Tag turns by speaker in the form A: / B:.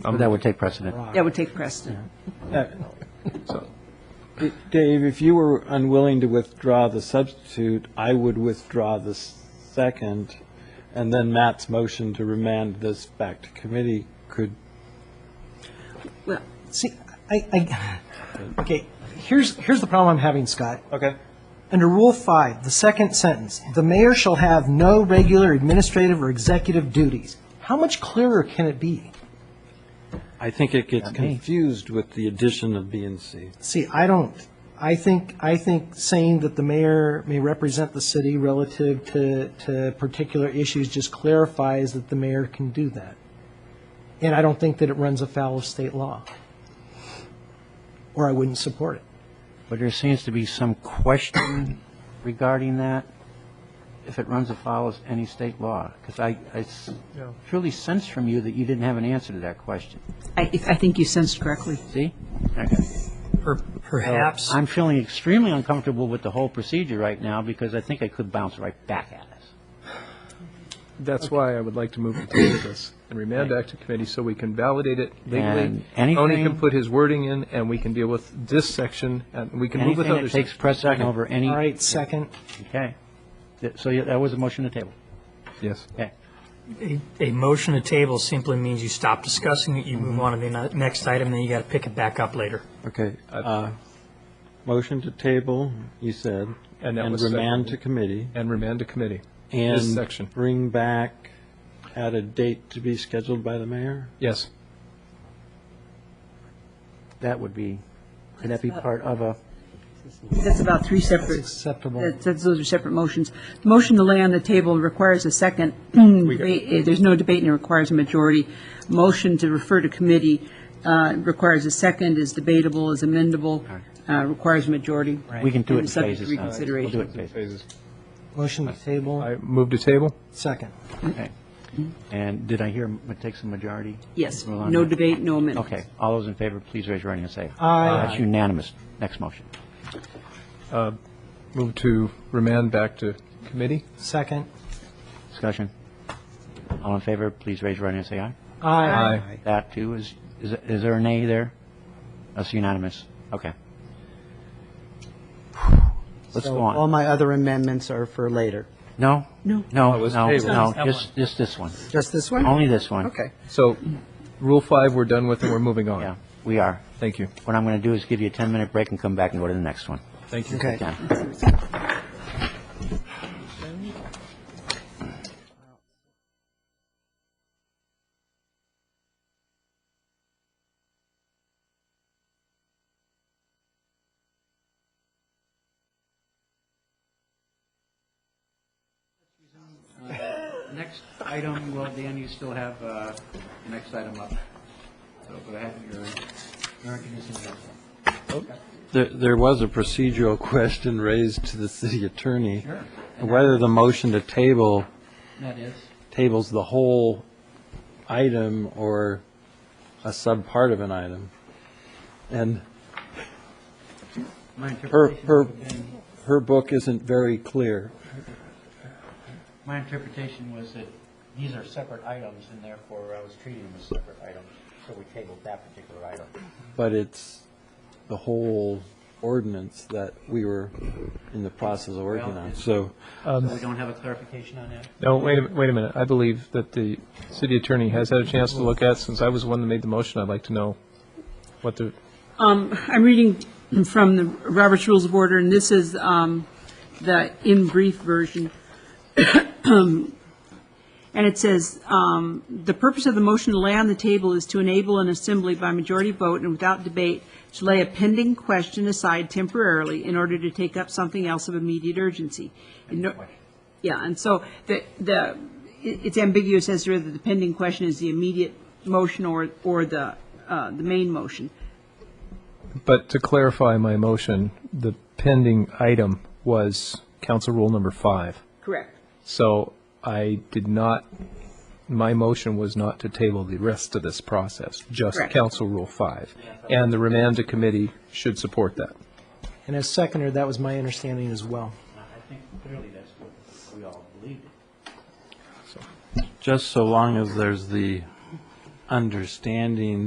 A: That would take precedent.
B: That would take precedent.
C: Dave, if you were unwilling to withdraw the substitute, I would withdraw the s- second, and then Matt's motion to remand this back to committee could,
B: Well,
D: See, I, I, okay, here's, here's the problem I'm having, Scott.
C: okay?
D: Under Rule 5, the second sentence, "The mayor shall have no regular administrative or executive duties." How much clearer can it be?
C: I think it gets confused with the addition of B and C.
D: See, I don't, I think, I think saying that the mayor may represent the city relative to, to particular issues just clarifies that the mayor can do that. And I don't think that it runs afoul of state law. Or I wouldn't support it.
A: But there seems to be some question regarding that, if it runs afoul of any state law. Because I I s- truly sense from you that you didn't have an answer to that question.
B: I, if- I think you sensed correctly.
A: See? Okay.
E: Per- Perhaps,
A: I'm feeling extremely uncomfortable with the whole procedure right now because I think I could bounce right back at us.
F: That's why I would like to move to table this and remand back to committee so we can validate it legally.
A: And
F: Tony
A: anything-
F: can put his wording in, and we can deal with this section, and we can move with
A: Anything that
F: others.
A: takes precedent over any.
D: All right, second.
A: Okay. Th- So yeah, that was a motion to table.
F: Yes.
A: Okay.
E: a a motion to table simply means you stop discussing it, you move on to the ne- next item, then you got to pick it back up later.
C: Okay. uh, Motion to table, you said,
F: And that
C: and
F: was
C: remand to
F: seconded.
C: committee,
F: And remand to committee. This section.
C: and bring back at a date to be scheduled by the mayor?
F: Yes.
A: That would be, could that be part of a,
B: That's about three separate,
D: Acceptable.
B: that's, that's- those are separate motions. The Motion to lay on the table requires a second. Debate- eh, There's no debate and it requires a majority. Motion to refer to committee uh, requires a second, is debatable, is amendable, uh, requires a majority.
A: we can do it in
B: And subject to
A: phases. now. We'll do it
B: reconsideration.
A: in phases.
D: Motion to table,
F: I move to table?
D: second.
A: Okay. And did I hear it takes a majority?
B: Yes,
A: Rolanda?
B: no debate, no amendment.
A: Okay. All those in favor, please raise your hand and say aye.
D: Aye.
A: That's unanimous. Next motion.
F: Move to remand back to committee?
D: Second.
A: Discussion. All in favor, please raise your hand and say aye.
F: Aye.
A: That too is, is is there a nay there? That's unanimous. Okay. Let's
G: So
A: go
G: All
A: on.
G: my other amendments are for later.
A: No?
B: No.
A: No,
F: Oh, it's
A: no,
F: tabled.
A: no,
E: That
A: just, just this one.
G: Just this one?
A: Only this one.
G: Okay.
F: So, Rule 5, we're done with, and we're moving on.
A: Yeah, we are.
F: Thank you.
A: What I'm going to do is give you a 10-minute break and come back and go to the next one.
F: Thank you.
G: Okay.
A: Yeah. Next item, well, Dan, you still have uh, the next item up. So go ahead, your American is in there.
C: There, there was a procedural question raised to the city attorney. Whether the motion to table
A: That is.
C: tables the whole item or a subpart of an item. And
A: My
C: her,
A: interpretation
C: her,
A: would have been-
C: her book isn't very clear.
A: My interpretation was that these are separate items, and therefore I was treating them as separate items, so we tabled that particular item.
C: but it's the whole ordinance that we were in the process of working on. So
A: So we don't have a clarification on that?
F: No, wait a, wait a minute. I believe that the city attorney has had a chance to look at, since I was the one that made the motion, I'd like to know what the,
B: Um, I'm reading from the Robert's Rules of Order, and this is um, the in brief version. And it says, um, "The purpose of the motion to lay on the table is to enable an assembly by majority vote and without debate to lay a pending question aside temporarily in order to take up something else of immediate urgency." In no- Yeah, and so the, the, it- it's ambiguous as to whether the pending question is the immediate motion or, or the, uh, the main motion.
F: but to clarify my motion, the pending item was council rule number five.
B: Correct.
F: So I did not, my motion was not to table the rest of this process, just
B: Correct.
F: council rule five. And the remand to committee should support that.
D: And as seconder, that was my understanding as well.
A: I think clearly that's what we all believed.
C: just so long as there's the understanding